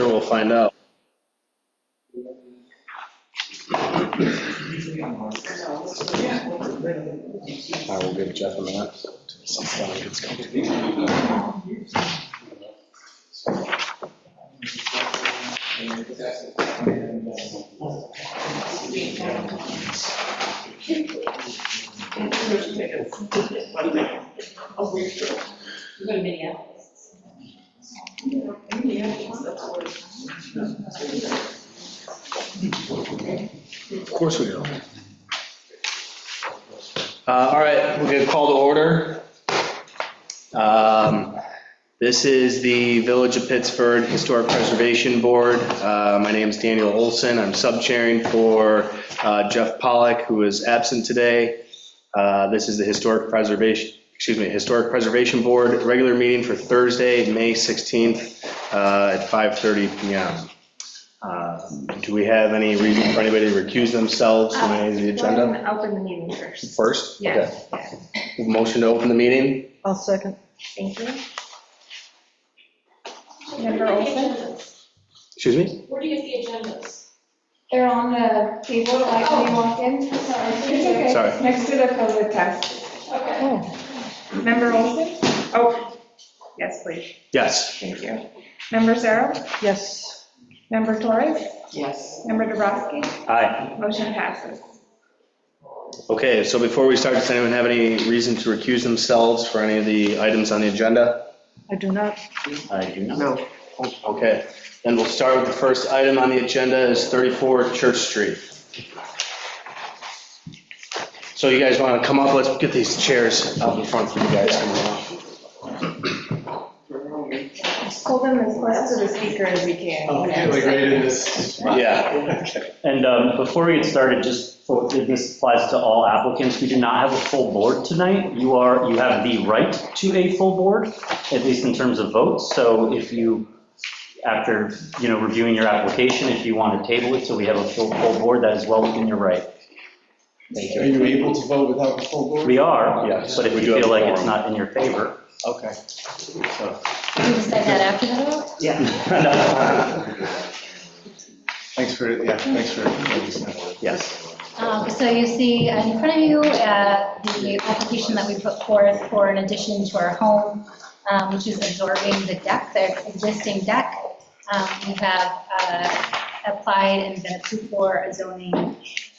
Sure, we'll find out. I will give Jeff a minute. You go to Minneapolis. Of course we do. Uh, All right, we're going to call to order. Um, This is the Village of Pittsford Historic Preservation Board. Uh, My name is Daniel Olson. I'm sub-chairing for uh, Jeff Pollack, who is absent today. Uh, This is the Historic Preservation, excuse me, Historic Preservation Board, regular meeting for Thursday, May 16th uh, at 5:30 PM. Uh, Do we have any reason for anybody to recuse themselves from any of the agenda? Open the meeting first. First? Yeah, Okay. yeah. Motion to open the meeting? I'll second. thank you. Member Olson? Excuse me? Where do you get the agendas? They're on the table, like when Oh. you walk in. It's okay. Sorry. Next to the COVID test. Okay. Oh, Member Olson? Oh, yes, please, Yes. thank you. Member Sarah? yes. Member Torres? Yes. Member Dubrasky? Aye. Motion passes. Okay, so before we start, does anyone have any reason to recuse themselves for any of the items on the agenda? I do not. I do not. No. Okay, then we'll start with the first item on the agenda is 34 Church Street. So you guys want to come up, let's get these chairs out in front for you guys. Hold them as close to the speaker as we can. Yeah. And um, before we get started, just, for- this applies to all applicants, we do not have a full board tonight. You are, you have the right to a full board, at least in terms of votes. So if you, after, you know, reviewing your application, if you want to table it so we have a full, full board, that is well within your right. Are you able to vote without a full board? We are, Yes, but if we you do have feel a like it's quorum. not in your favor. Okay. Can you decide that after the vote? Thanks for, yeah, thanks for. Yes. Um, So you see in front of you, uh, the application that we put forth for an addition to our home, um, which is absorbing the deck, the existing deck. Um, We have uh, applied and been approved for a zoning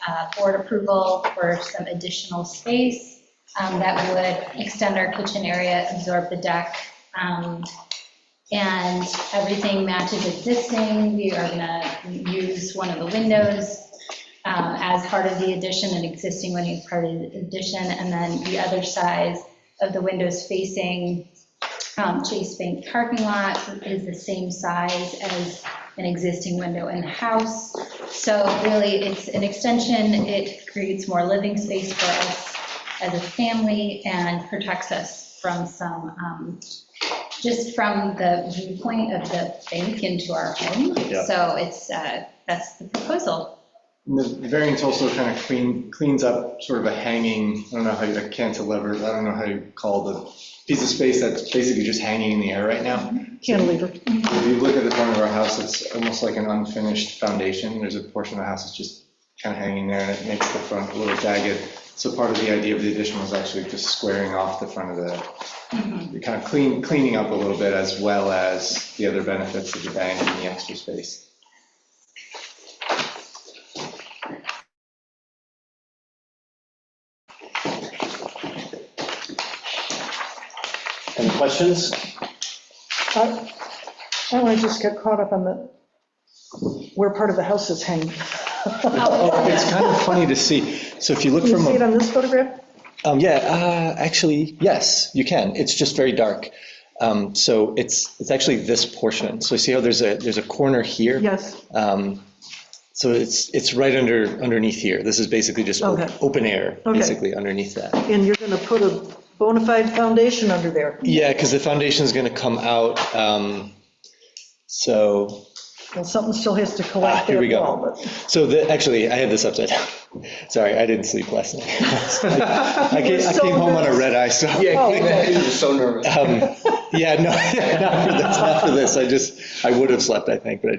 uh, board approval for some additional space um, that would extend our kitchen area, absorb the deck. um, And everything matches existing. We are going to use one of the windows um, as part of the addition, an existing one is part of the addition, and then the other size of the windows facing um, Chase Bank parking lot is the same size as an existing window in the house. So really, it's an extension, it creates more living space for us as a family and protects us from some, um, just from the viewpoint of the bank into our home. Yeah. So it's, uh, that's the proposal. The variance also kind of clean, cleans up sort of a hanging, I don't know how you, a cantilever, I don't know how you call the piece of space that's basically just hanging in the air right now. Cantilever. If you look at the front of our house, it's almost like an unfinished foundation. There's a portion of the house that's just kind of hanging there, and it makes the front a little jagged. So part of the idea of the addition was actually just squaring off the front of the, kind of clean, cleaning up a little bit, as well as the other benefits of the bank and the extra space. Any questions? I oh, I just got caught up on the, where part of the house is hanging. Oh, It's kind of funny to see. So if you look Can you from, see it a- on this photograph? um, yeah, uh, actually, yes, you can. It's just very dark. Um, So it's, it's actually this portion. So see how there's a, there's a corner here? Yes, Um, So it's, it's right under, underneath here. This is basically just op- Okay. open air, Okay. basically underneath that. and you're going to put a bona fide foundation under there. Yeah, because the foundation's going to come out, um, so, Well, something still has to ah, collect here we that go. wall, but So the, actually, I had this upside down. Sorry, I didn't sleep last night. I came- I so came home on a nervous. red eye, so. Oh, okay. Um, Yeah, no, not for this, not for this. I just, I would have slept, I think, but I